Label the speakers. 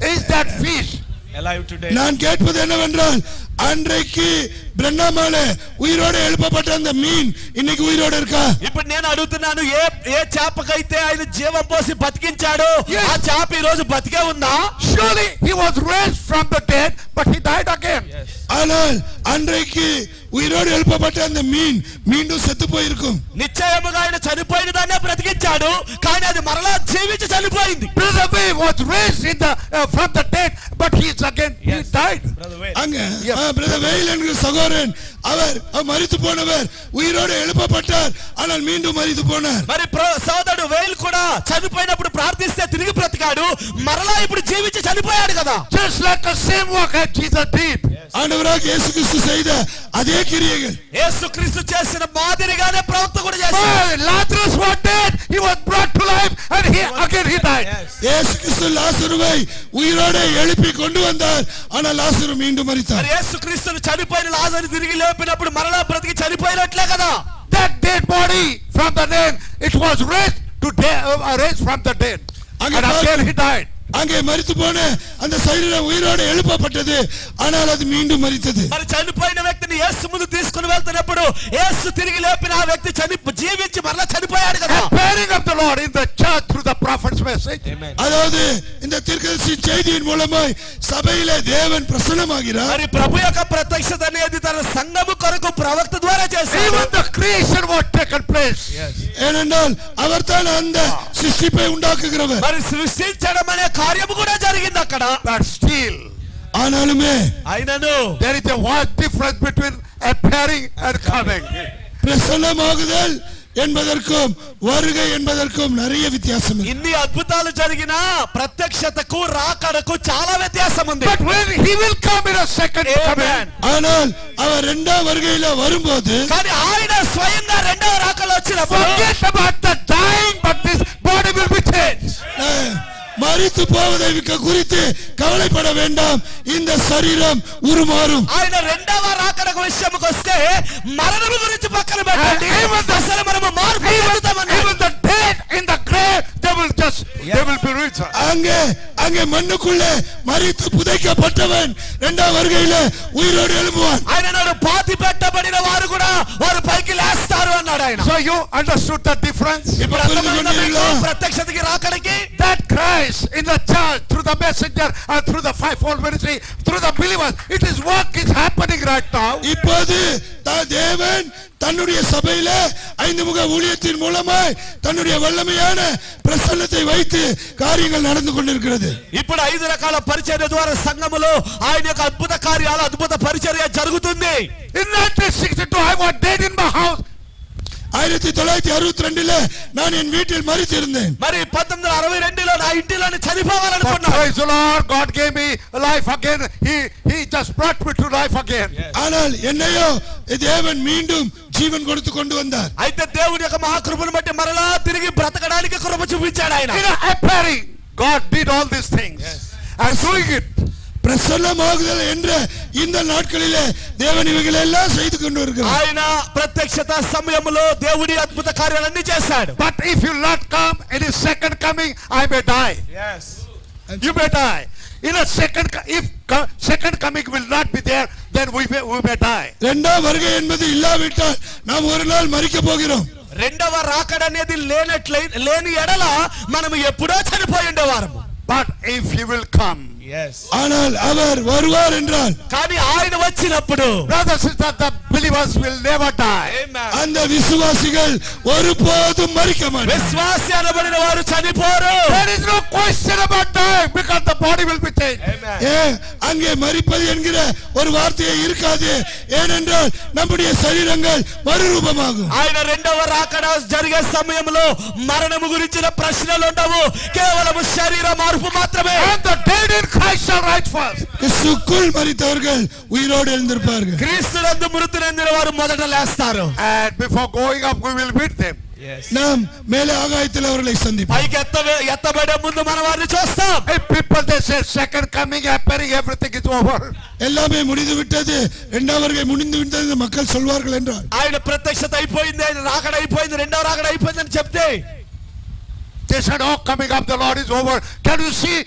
Speaker 1: that fish.
Speaker 2: alive today.
Speaker 3: நான் கேட்பது என்னவென்றால் அன்றைக்கு பிரண்ணாமால உயிரோடு எழுப்பப்பட்ட அந்த மீன் இன்னைக்கு உயிரோடு இருக்கா
Speaker 2: ఇప్పుడు నేను అడుగుతున్నాను ఏ ఏ చేపకైతే ఆయన జీవం పోసి బతికించాడో
Speaker 1: Yes.
Speaker 2: ఆ చేప ఈ రోజు బతికే ఉందా
Speaker 1: Surely he was raised from the dead, but he died again.
Speaker 3: ஆனால் அன்றைக்கு உயிரோடு எழுப்பப்பட்ட அந்த மீன் மீண்டும் செத்து போயிருக்கும்
Speaker 2: నిశ్చయముగా ఆయన చనిపోయిన దాన్నే బ్రతికించాడు కానీ అది మరలా జీవించి చనిపోయింది
Speaker 1: Brother Way was raised in the uh, from the dead, but he is again he died.
Speaker 3: அங்க பிரதர் வெயில் என்கிற சகோதரன் அவர் அவர் மரித்து போனவர் உயிரோடு எழுப்பப்பட்டார் ஆனால் மீண்டும் மரித்து போனார்
Speaker 2: మరి ప్ర- సోదరుడు వేలు కూడా చనిపోయినప్పుడు ప్రార్థిస్తే తిరిగి బ్రతికాడు మరలా ఇప్పుడు జీవించి చనిపోయాడు కదా
Speaker 1: Just like the same work that Jesus did.
Speaker 3: ஆண்டவராக இயேசு கிறிஸ்து செய்த அதே கிரியைகள்
Speaker 2: యేసుక్రీస్తు చేసిన మాదిరిగానే ప్రవక్త కూడా చేశాడు
Speaker 1: Why? Lazarus was dead, he was brought to life, and he again he died.
Speaker 3: இயேசு கிறிஸ்து லாசருவை உயிரோடு எழுப்பி கொண்டு வந்தார் ஆனால் லாசரு மீண்டும்
Speaker 2: మరి
Speaker 3: மரித்தார்
Speaker 2: యేసుక్రీస్తును చనిపోయిన లాజరు తిరిగి లేపినప్పుడు మరలా బ్రతికి చనిపోయినట్లే కదా
Speaker 1: That dead body from the dead, it was raised to dead, uh, raised from the dead, and
Speaker 3: Again,
Speaker 1: again he died.
Speaker 2: Ah.
Speaker 3: அங்கே மரித்து போன அந்த சரீரம் உயிரோடு எழுப்பப்பட்டது ஆனால் அது மீண்டும் மரித்தது
Speaker 2: మరి చనిపోయిన వ్యక్తిని యేసు ముందు తీసుకుని వెళ్తున్నప్పుడు యేసు తిరిగి లేపిన ఆ వ్యక్తి చని జీవించి మరలా చనిపోయాడు కదా
Speaker 1: And bearing of the Lord in the church through the prophet's message.
Speaker 3: அதாவது இந்த தீர்க்கதரிசி செய்தியின் மூலமாய் சபையிலே தேவன் பிரசன்னமாகிறார்
Speaker 2: మరి ప్రభు యొక్క ప్రత్యక్షత అనేది తన సంఘము కొరకు ప్రవక్త ద్వారా చేశాడు
Speaker 1: Even the creation was taken place.
Speaker 3: ஏனென்றால் அவர்தான் அந்த சிருஷ்டிப்பை உண்டாக்குகிறவர்
Speaker 2: మరి సృష్టించడం అనే కార్యము కూడా జరిగింది అక్కడ
Speaker 1: But still,
Speaker 3: ஆனாலுமே
Speaker 2: అయినను
Speaker 1: there is a vast difference between appearing and coming.
Speaker 3: பிரசன்னமாகுதல் என்பதற்கும் வருகை என்பதற்கும் நிறைய வித்தியாசம் இருக்கு.
Speaker 2: ఇన్ని అద్భుతాలు జరిగిన ప్రత్యక్షతకు రాకడకు చాలా వ్యత్యాసం ఉంది
Speaker 1: But when he will come in a second
Speaker 2: Amen.
Speaker 1: coming,
Speaker 3: ஆனால் அவர் இரண்டாம் வருகையில வரும்போது
Speaker 2: కానీ ఆయన స్వయంగా రెండవ రాకలు వచ్చినప్పుడు
Speaker 1: forget about the dying, but this body will be changed.
Speaker 3: அஹ், மரித்து போவதை கு- குறித்து கவலைப்பட வேண்டாம் இந்த சரீரம் உருமாறும்
Speaker 2: ఆయన రెండవ రాకడ విషయంకి వస్తే మరణము గురించి పక్కన పెట్టండి
Speaker 1: And even the-
Speaker 2: అసలు మనము మార్పు
Speaker 1: Even,
Speaker 2: చెందుతామని
Speaker 1: even the dead in the grave, they will just, they will be risen.
Speaker 3: அங்கே அங்கே மண்ணுக்குள்ளே மரித்து புதைக்கப்பட்டவன் இரண்டாம் வருகையில உயிரோடு எழும்புவான்
Speaker 2: ఆయన నాడు పాతి పెట్టబడిన వారు కూడా వారు పైకి లేస్తారు అన్నాడు ఆయన
Speaker 1: So you understood the difference?
Speaker 3: இப்ப புரிந்து
Speaker 2: అర్థమైందా మీకు?
Speaker 3: கொண்டீர்களா
Speaker 2: ప్రత్యక్షతకి రాకడికి
Speaker 1: That Christ in the church, through the messenger, and through the fivefold ministry, through the believers, it is work is happening right now.
Speaker 3: இப்போது த- தேவன் தன்னுடைய சபையில ஐந்து முக ஊழியத்தின் மூலமாய் தன்னுடைய வல்லமையான பிரசன்னத்தை வைத்து காரியங்கள் நடந்து கொண்டிருக்கிறது
Speaker 2: ఇప్పుడు ఐదు రకాల పరిచర్య ద్వారా సంఘములో ఆయన యొక్క అద్భుత కార్యాలు అద్భుత పరిచర్య జరుగుతుంది
Speaker 1: In 1962, I was dead in my house.
Speaker 3: ஆயிரத்தி தொள்ளாயிரத்தி அறுபத்தி ரெண்டுல நான் என் வீட்டில் மறித்திருந்தேன்
Speaker 2: మరి పంతొమ్మిది వందల అరవై రెండులో నా ఇంటిలోని
Speaker 1: But
Speaker 2: చనిపోవాలనుకున్నాను
Speaker 1: praise the Lord, God gave me life again. He, he just brought me to life again.
Speaker 3: ஆனால் என்னையோ தேவன் மீண்டும் ஜீவன் கொடுத்து கொண்டு வந்தார்
Speaker 2: అయితే దేవుని యొక్క మహాకృపను బట్టి మరలా తిరిగి బ్రతకడానికి కృప చూపించాడు ఆయన
Speaker 1: In a appearing, God did all these things. And doing it.
Speaker 3: பிரசன்னமாகுதல் என்ற இந்த நாட்களிலே தேவன் இவைகளை எல்லாம் செய்து கொண்டு வருகிறார்
Speaker 2: ఆయన ప్రత్యక్షత సమయంలో దేవుడి అద్భుత కార్యాలన్నీ చేశాడు
Speaker 1: But if you not come in his second coming, I may die. You may die. In a second, co- if co- second coming will not be there, then we may, we may die.
Speaker 3: இரண்டாம் வருகை என்பது இல்லாவிட்டால் நாம் ஒரு நாள் மறிக்க போகிறோம்
Speaker 2: రెండవ రాకడ అనేది లేనట్లై లేని ఎడల మనం ఎప్పుడో చనిపోయి ఉండేవారము
Speaker 1: But if he will come,
Speaker 3: ஆனால் அவர் வருவார் என்றால்
Speaker 2: కానీ ఆయన వచ్చినప్పుడు
Speaker 1: brothers and sisters, the believers will never die.
Speaker 3: அந்த விசுவாசிகள் ஒருபோதும் மறிக்க மாட்டார்
Speaker 2: విశ్వాసి అనబడిన వారు చనిపోరు
Speaker 1: There is no question about dying because the body will be changed.
Speaker 3: ஏன் அங்கே மறிப்பது என்கிற ஒரு வார்த்தையே இருக்காது ஏனென்றால் நம்முடைய சரீரங்கள் மறுரூபமாகும்
Speaker 2: ఆయన రెండవ రాకడ జరిగే సమయంలో మరణము గురించిన ప్రశ్నలు ఉండవు కేవలం శరీర మార్పు మాత్రమే
Speaker 1: And the dead in Christ shall rise first.
Speaker 3: கிறிஸ்துக்குள் மறித்தவர்கள் உயிரோடு எழுந்திருப்பார்கள்
Speaker 2: క్రీస్తునందు మృతి నందిన వారు మొదట లేస్తారు
Speaker 1: And before going up, we will meet them.
Speaker 3: நாம் மேலே ఆగాయத்தில் அவர்களை சந்திப்போம்
Speaker 2: పైకి ఎత్త ఎత్తబడే ముందు మన వారిని చూస్తాం
Speaker 1: If people they say second coming, appearing, everything is over.
Speaker 3: எல்லாமே முடிந்து விட்டது இரண்டாம் வருகை முடிந்து விட்டது என்று மக்கள் சொல்வார்கள் என்றால்
Speaker 2: ఆయన ప్రత్యక్షత అయిపోయింది ఆయన రాకడ అయిపోయింది రెండవ రాకడ అయిపోయింది అని చెప్తే
Speaker 1: They said, oh, coming up, the Lord is over. Can you see